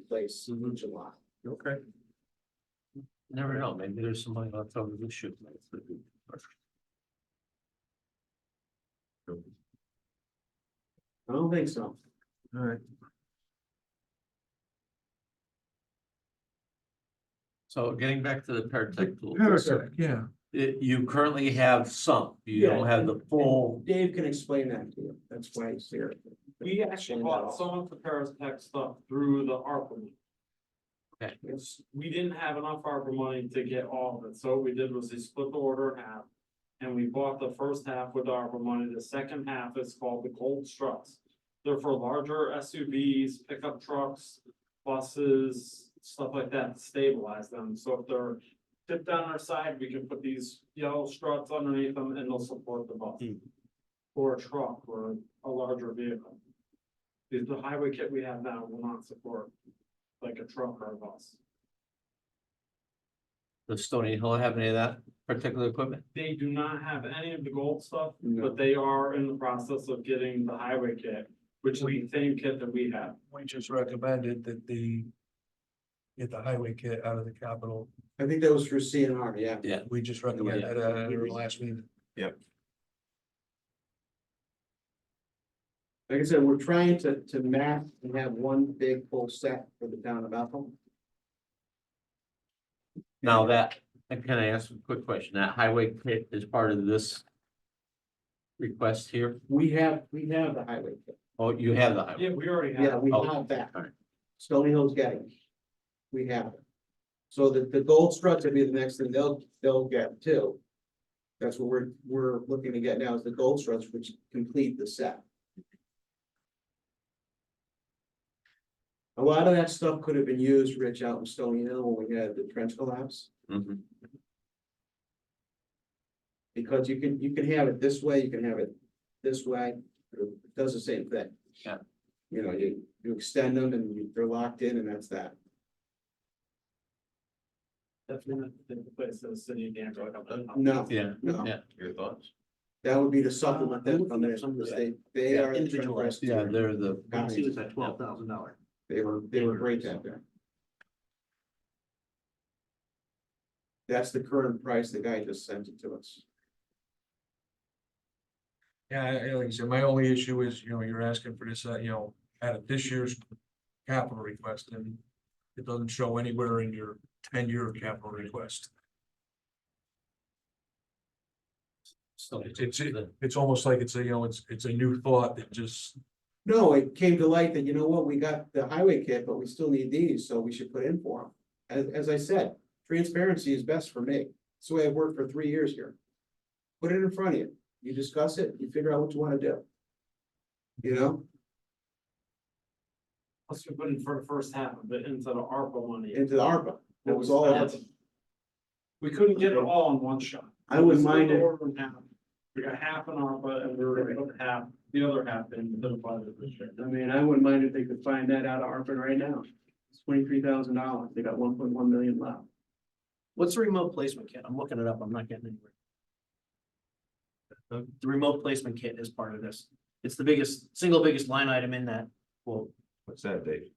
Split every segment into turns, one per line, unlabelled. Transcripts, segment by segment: place in
Mhm.
July.
Okay.
Never know, maybe there's somebody left over the shoot.
I don't think so.
All right.
So getting back to the paratech tool,
Perfect, yeah.
it- you currently have some, you don't have the full.
Dave can explain that to you. That's why he's here.
We actually bought some of the Paratech stuff through the ARPA. money.
Okay.
It's- we didn't have enough ARPA money to get all of it, so what we did was we split the order in half. And we bought the first half with ARPA money, the second half is called the Gold Struts. They're for larger SUVs, pickup trucks, buses, stuff like that, to stabilize them, so if they're. Tipped on our side, we can put these yellow struts underneath them and they'll support the bus.
Hmm.
Or a truck or a larger vehicle. The, the highway kit we have now will not support like a truck or a bus.
Does Stony Hill have any of that particular equipment?
They do not have any of the gold stuff,
No.
but they are in the process of getting the highway kit, which is the same kit that we have.
We just recommended that the. Get the highway kit out of the capital.
I think that was through CNR, yeah.
We just recommended
Yeah.
that at our last meeting.
Like I said, we're trying to, to map and have one big full set for the town of Bethel.
Now that, and can I ask a quick question? That highway kit is part of this request here?
We have, we have the highway. kit.
Oh, you have the highway.
Yeah, we already
Yeah,
have.
we
Oh,
have that.
all right.
Stony Hill's got it. We have it. So the, the gold struts would be the next thing they'll, they'll get too. That's what we're, we're looking to get now is the gold struts, which complete the set. A lot of that stuff could have been used, Rich, out in Stony Hill when we had the trench collapse.
Mhm.
Because you can, you can have it this way, you can have it this way, it does the same thing.
Yeah.
You know, you, you extend them and you- they're locked in and that's that.
That's in the the place that the city of Danville.
Uh, No,
Yeah,
no,
yeah.
Your thoughts?
that would be to supplement that from there,
Some of that.
they, they are. the trend breasters.
Yeah, they're the.
Yeah.
See, it's at twelve thousand dollar.
They were, they were great out there. That's the current price the guy just sent it to us.
Yeah, I- I- like I said, my only issue is, you know, you're asking for this, uh, you know, out of this year's capital request and. It doesn't show anywhere in your ten-year capital request.
Stony
It's-
Hill.
It's almost like it's a, you know, it's, it's a new thought that just,
No, it came to light that, you know what, we got the highway kit, but we still need these, so we should put in for them. As, as I said, transparency is best for me. It's the way I've worked for three years here. Put it in front of you. You discuss it, you figure out what you wanna do. You know,
Plus we put in for the first half of it into the ARPA money.
into the ARPA, that was all. of it.
We couldn't get it all in one shot.
I wouldn't
We split
mind
the
it.
order in half. We got half an ARPA and we were gonna put half, the other half in the budget this year.
I mean, I wouldn't mind if they could find that out of ARPA right now. It's twenty-three thousand dollars. They got one point one million left.
What's the remote placement kit? I'm looking it up. I'm not getting anywhere. The, the remote placement kit is part of this. It's the biggest, single biggest line item in that. Well,
What's that, Dave?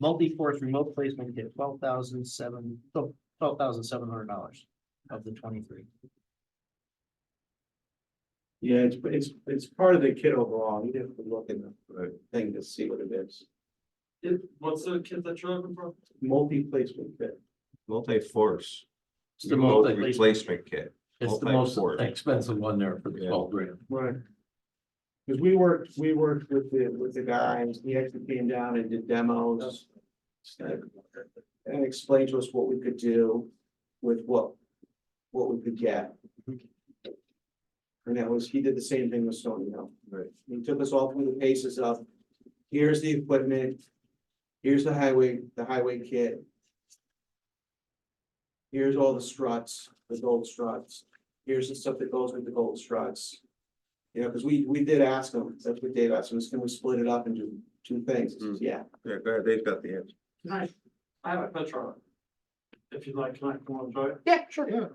multi-force remote placement kit, twelve thousand seven, oh, twelve thousand seven hundred dollars of the twenty-three.
Yeah, it's, it's, it's part of the kit overall. You have to look in the
Right.
thing to see what it is.
It- what's the kid that you're looking for?
Multi-placement kit.
Multi-force.
It's the
remote
most,
Replacement kit.
it's the most
multi-force.
expensive one there for the
Yeah.
twelve grand.
Right. Cause we worked, we worked with the, with the guys, he actually came down and did demos. And and explained to us what we could do with what, what we could get. And that was, he did the same thing with Stony Hill.
Right.
He took us all through the paces of, here's the equipment, here's the highway, the highway kit. Here's all the struts, the gold struts, here's the stuff that goes with the gold struts. You know, because we, we did ask them, that's what Dave asked him, is can we split it up and do two things? He says, Yeah,
Yeah, go ahead, Dave's got the answer.
Can I, I have a picture. of it. If you'd like, can I come on, Joy?
yeah, sure, yeah.